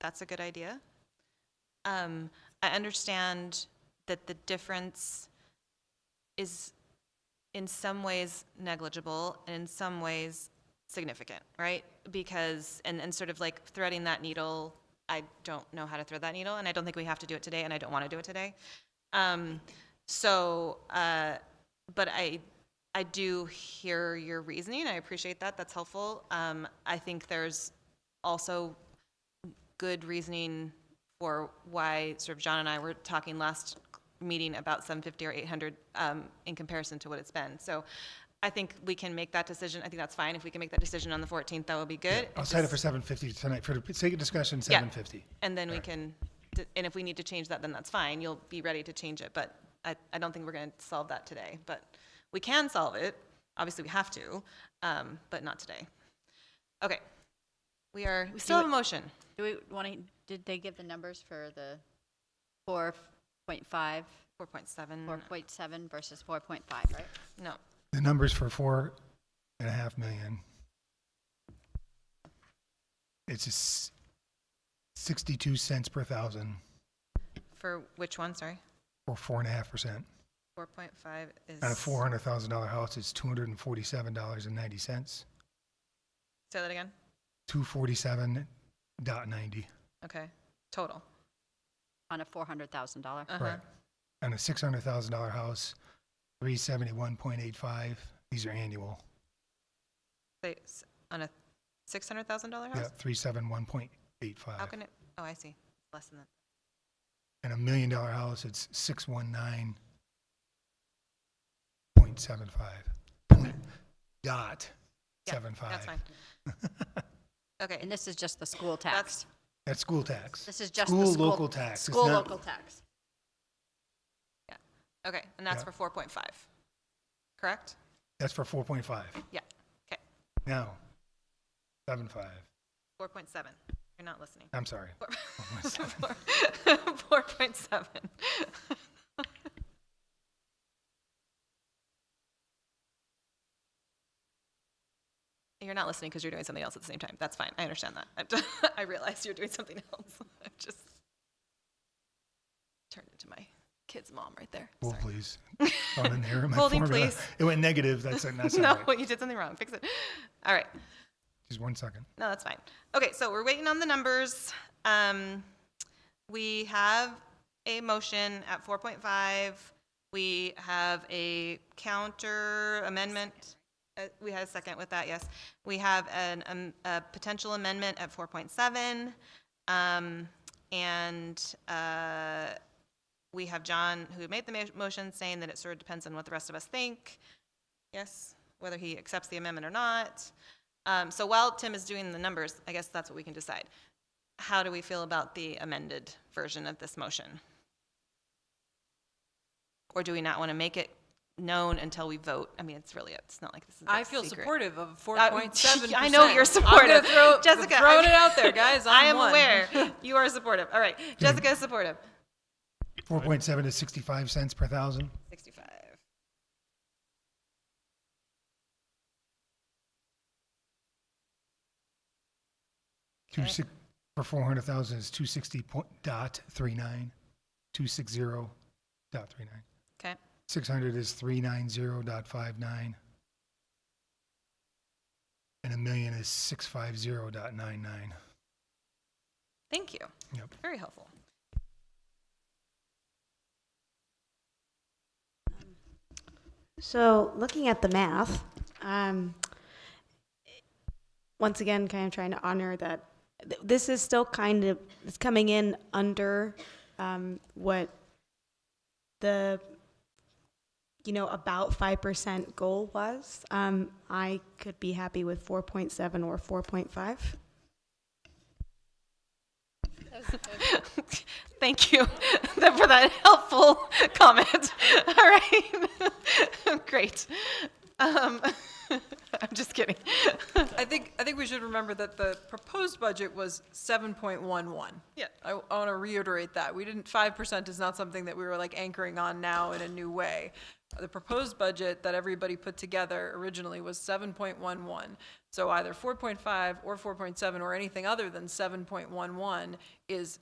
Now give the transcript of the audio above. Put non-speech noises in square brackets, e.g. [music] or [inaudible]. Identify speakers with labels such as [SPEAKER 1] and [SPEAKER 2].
[SPEAKER 1] that's a good idea. Um, I understand that the difference is in some ways negligible and in some ways significant, right? Because, and, and sort of like threading that needle, I don't know how to thread that needle, and I don't think we have to do it today, and I don't want to do it today. Um, so, uh, but I, I do hear your reasoning. I appreciate that. That's helpful. Um, I think there's also good reasoning for why sort of John and I were talking last meeting about 750 or 800 um, in comparison to what it's been. So I think we can make that decision. I think that's fine. If we can make that decision on the 14th, that would be good.
[SPEAKER 2] I'll set it for seven fifty tonight for the sake of discussion,
[SPEAKER 1] Yeah.
[SPEAKER 2] seven fifty.
[SPEAKER 1] And then we can, d- and if we need to change that, then that's fine. You'll be ready to change it, but I, I don't think we're going to solve that today. But we can solve it. Obviously, we have to, um, but not today. Okay. We are, we still have a motion.
[SPEAKER 3] Do we want to, did they give the numbers for the 4.5,
[SPEAKER 1] 4.7,
[SPEAKER 4] Mm.
[SPEAKER 3] 4.7 versus 4.5, right?
[SPEAKER 1] no,
[SPEAKER 2] The numbers for four and a half million. It's just sixty-two cents per thousand
[SPEAKER 1] for which one, sorry?
[SPEAKER 2] or four and a half percent.
[SPEAKER 1] 4.5 is.
[SPEAKER 2] On a Uh, four hundred thousand dollar house, it's two hundred and forty-seven dollars and ninety cents.
[SPEAKER 1] Say that again?
[SPEAKER 2] Two forty-seven dot ninety.
[SPEAKER 1] Okay, total.
[SPEAKER 3] On a $400,000.
[SPEAKER 4] Uh,
[SPEAKER 1] Uh-huh.
[SPEAKER 2] Right. On a six hundred thousand dollar house, three seventy-one point eight five. These are annual.
[SPEAKER 1] They- s- On a $600,000
[SPEAKER 2] Yeah,
[SPEAKER 1] house?
[SPEAKER 2] three seven one point eight
[SPEAKER 1] How
[SPEAKER 2] five.
[SPEAKER 1] can it, oh, I see, less than that.
[SPEAKER 2] and a million dollar house, it's six one nine point seven five. Dot
[SPEAKER 1] Yeah,
[SPEAKER 2] seven
[SPEAKER 1] That's
[SPEAKER 2] five.
[SPEAKER 1] fine.
[SPEAKER 2] [laughs]
[SPEAKER 1] Okay,
[SPEAKER 3] And this is just the school
[SPEAKER 1] That's-
[SPEAKER 3] tax.
[SPEAKER 2] That's school tax.
[SPEAKER 3] This is just the
[SPEAKER 2] School
[SPEAKER 3] school.
[SPEAKER 2] local tax, it's
[SPEAKER 3] School
[SPEAKER 2] not-
[SPEAKER 3] local tax.
[SPEAKER 1] okay, and that's
[SPEAKER 2] Yeah.
[SPEAKER 1] for 4.5, correct?
[SPEAKER 2] That's for four point five.
[SPEAKER 1] Yeah, okay,
[SPEAKER 2] Now, seven five.
[SPEAKER 1] 4.7, you're not listening.
[SPEAKER 2] [laughs] I'm sorry.
[SPEAKER 1] Four-
[SPEAKER 2] 4.7.
[SPEAKER 1] Four- 4.7. [laughs] You're not listening because you're doing something else at the same time. That's fine. I understand that. I'm t- [laughs] I realize you're doing something else. [laughs] I just turned into my kid's mom right there.
[SPEAKER 2] Well,
[SPEAKER 1] Sorry.
[SPEAKER 2] please. Not in there in my
[SPEAKER 3] [laughs]
[SPEAKER 1] Holding,
[SPEAKER 2] formula.
[SPEAKER 1] please.
[SPEAKER 2] It went negative. That's it. That's
[SPEAKER 1] [laughs]
[SPEAKER 2] all
[SPEAKER 1] No,
[SPEAKER 2] right.
[SPEAKER 1] you did something wrong. Fix it. All right.
[SPEAKER 2] Just one second.
[SPEAKER 1] No, that's fine. Okay, so we're waiting on the numbers. Um, we have a motion at four point five. We have a counter amendment. Uh, we had a second with that, yes. We have an, um, a potential amendment at four point seven. Um, and, uh, we have John, who made the ma- motion, saying that it sort of depends on what the rest of us think. Yes, whether he accepts the amendment or not. Um, so while Tim is doing the numbers, I guess that's what we can decide. How do we feel about the amended version of this motion? Or do we not want to make it known until we vote? I mean, it's really, it's not like this is a
[SPEAKER 4] I feel
[SPEAKER 1] secret.
[SPEAKER 4] supportive of four
[SPEAKER 1] Uh, [laughs]
[SPEAKER 3] [laughs]
[SPEAKER 4] point seven.
[SPEAKER 1] I know you're supportive.
[SPEAKER 4] Throw,
[SPEAKER 1] Jessica, I'm-
[SPEAKER 4] throwing it out there, guys. I'm
[SPEAKER 1] [laughs] I am
[SPEAKER 4] one. [laughs]
[SPEAKER 1] aware. You are supportive. All right. Jessica is supportive.
[SPEAKER 2] Four point seven is sixty-five cents per thousand.
[SPEAKER 1] 65.
[SPEAKER 2] Two
[SPEAKER 1] Okay.
[SPEAKER 2] six, for four hundred thousand is two sixty point, dot three nine, two six zero dot three nine.
[SPEAKER 1] Okay.
[SPEAKER 2] 600 is 390.59. And a million is 650.99.
[SPEAKER 1] Thank you.
[SPEAKER 2] Yep.
[SPEAKER 1] Very helpful.
[SPEAKER 5] So, looking at the math, um, once again, kind of trying to honor that th- this is still kind of it's coming in under um, what the you know about five percent goal was. Um, I could be happy with four point seven or four point five.
[SPEAKER 1] Thank you [laughs] for that helpful [laughs] comment. All right. [laughs] Great. Um, [laughs] I'm just kidding. [laughs]
[SPEAKER 4] I think I think we should remember that the proposed budget was seven point one one.
[SPEAKER 1] Yeah.
[SPEAKER 4] I, want to reiterate that we didn't. Five percent is not something that we were like anchoring on now in a new way. The proposed budget that everybody put together originally was 7.11. So either 4.5 or 4.7 or anything other than 7.11 is